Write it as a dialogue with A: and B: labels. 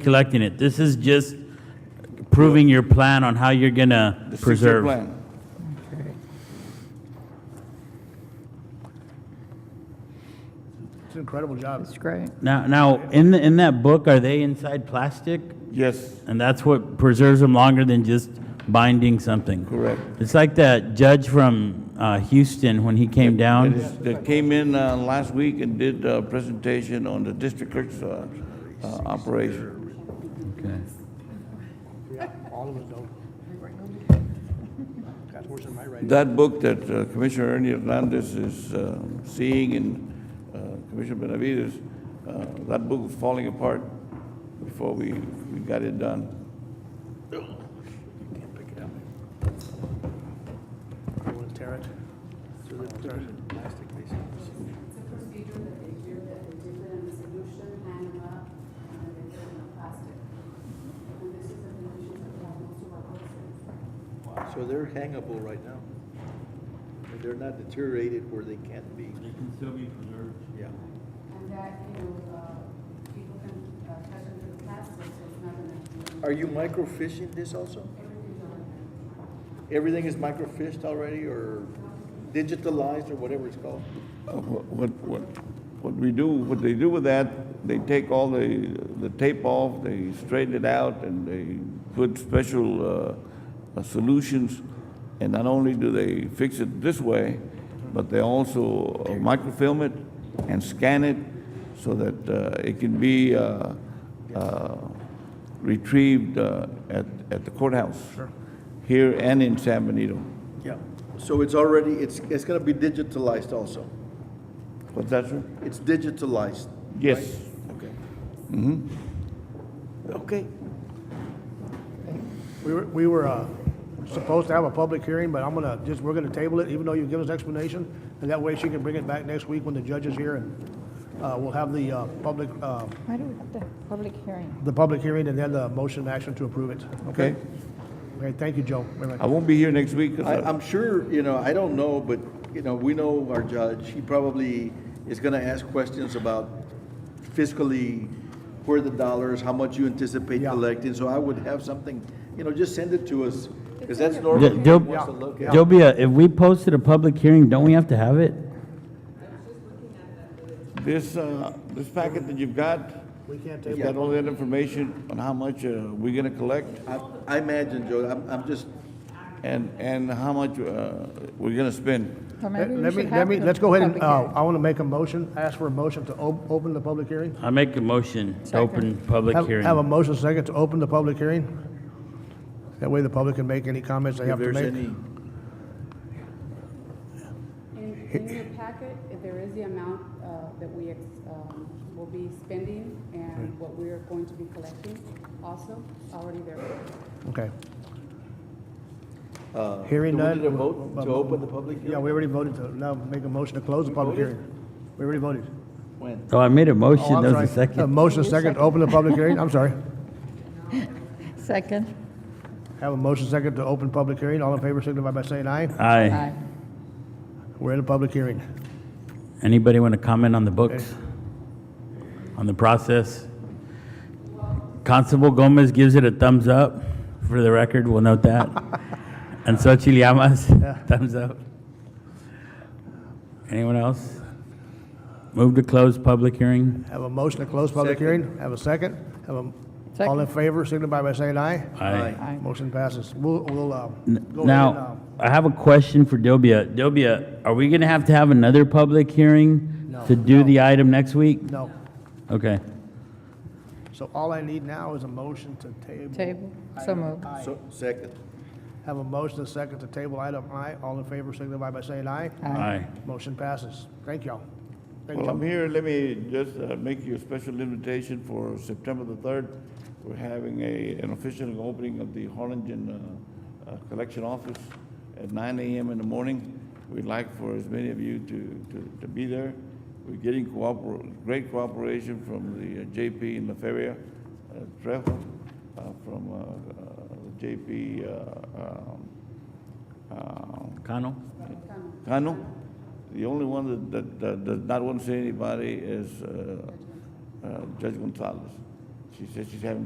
A: collecting it. This is just proving your plan on how you're gonna
B: the future
A: preserve.
B: plan.
C: It's an incredible job.
D: It's great.
A: Now, now, in, the- in that book, are they inside plastic?
B: Yes,
A: And that's what preserves them longer than just binding something.
B: correct.
A: It's like that judge from uh, Houston when he came
B: That
A: down.
B: is- That came in uh, last week and did a presentation on the district clerk's uh, uh, operation.
A: Okay.
C: All of us don't. Got worse than my writing.
B: That book that uh, Commissioner Ernie Hernandez is uh, seeing and uh, Commissioner Benavides, uh, that book was falling apart before we we got it done.
C: I want to tear it. So they'll tear it.
E: procedure that they hear that they dip it in a solution, hand them up, and then they put it in a plastic. And this is the condition that we have most of our officers.
F: So they're hangable right now. And They're not deteriorated where they can't be. Yeah.
E: And that, you know, uh, people can uh, touch it with plastic, so it's not gonna,
F: Are you microfishing this also?
E: everything's on there.
F: Everything is microfished already or digitalized or whatever it's called?
B: Uh, wh- What, what, what we do, what they do with that, they take all the, the tape off, they straighten it out, and they put special uh, uh, solutions. And not only do they fix it this way, but they also uh, microfilm it and scan it so that uh, it can be uh, uh, retrieved uh, at, at the courthouse. Here and in San Benito.
F: Yeah. So it's already, it's, it's gonna be digitalized also.
B: What's that, sir?
F: It's digitalized.
B: Yes.
F: Okay. Mm-hmm. Okay.
C: We were, we were uh, supposed to have a public hearing, but I'm gonna, just, we're gonna table it, even though you give us explanation, and that way she can bring it back next week when the judge is here, and uh, we'll have the uh, public, uh,
D: Why do we have the public hearing?
C: the public hearing and then the motion action to approve it.
B: Okay.
C: Okay, thank you, Joe. Very much.
B: I won't be here next week. 'cause
F: I, I'm sure, you know, I don't know, but, you know, we know our judge, he probably is gonna ask questions about fiscally, where the dollars, how much you anticipate
C: Yeah.
F: collecting, so I would have something, you know, just send it to us, because that's
A: Yeah,
F: normal.
A: Joe-
F: Everyone wants to look at.
A: Jobia, if we posted a public hearing, don't we have to have it?
B: This, uh, this packet that you've got,
C: We can't
B: it's
C: table
B: got all that information on how much uh, we're gonna collect
F: I- I imagine, Joe, I'm, I'm just,
B: and, and how much uh, we're gonna spend.
D: Or
C: Let
D: maybe we
C: let me,
D: should
C: let
D: have
C: me,
D: the
C: let's go ahead and,
D: public
C: uh,
D: hearing.
C: I wanna make a motion, ask for a motion to op- open the public hearing.
A: I make a motion to open public
C: Have-
A: hearing.
C: Have a motion second to open the public hearing. That way the public can make any comments they
F: if
C: have to
F: there's
C: make.
F: any,
E: In, in your packet, there is the amount uh, that we ex- um, will be spending and what we are going to be collecting also, already there.
C: Okay.
F: uh.
C: Hearing
F: do we
C: none.
F: need a vote to open the public hearing?
C: Yeah, we already voted to, now make a motion to close the public
F: voted?
C: hearing. We already voted.
F: When?
A: Oh, I made a
C: Oh,
A: motion,
C: I'm
A: that
C: sorry.
A: was a
C: A
A: second.
C: motion second to open the public hearing, I'm sorry.
D: Second.
C: Have a motion second to open public hearing, all in favor signify by saying aye.
A: Aye.
C: We're in a public hearing.
A: Anybody want to comment on the books? On the process? Constable Gomez gives it a thumbs up, for the record, we'll note that. And Xochitl Llamas, thumbs up. Anyone else? Move to close public hearing?
C: Have a motion to close public hearing, have a second, have a, all in
D: Second.
C: favor signify by saying aye.
A: Aye.
D: Aye.
C: Motion passes. We'll, we'll, uh, go ahead and, uh,
A: Now, I have a question for Dobia. Dobia, are we going to have to have another public hearing
C: No.
A: to do the item next week?
C: uh, no.
A: Okay.
C: So all I need now is a motion to table.
D: Table. So
C: item
D: moved.
C: I.
F: So, second.
C: Have a motion and second to table item I. All in favor signify by saying aye.
A: Aye.
C: Motion passes. Thank y'all. Thank
B: Well,
C: y'all.
B: I'm here, let me just uh, make you a special invitation for September the 3rd. We're having a, an official opening of the Harlingen uh, uh, Collection Office at 9 AM in the morning. We'd like for as many of you to, to, to be there. We're getting cooper, great cooperation from the uh, JP in La Feria, uh, Trejo, uh, from uh, uh, JP uh, um, uh,
A: Connell?
B: Cano. The only one that, that, that does not want to see anybody is uh, uh, Judge Gonzalez. She says she's having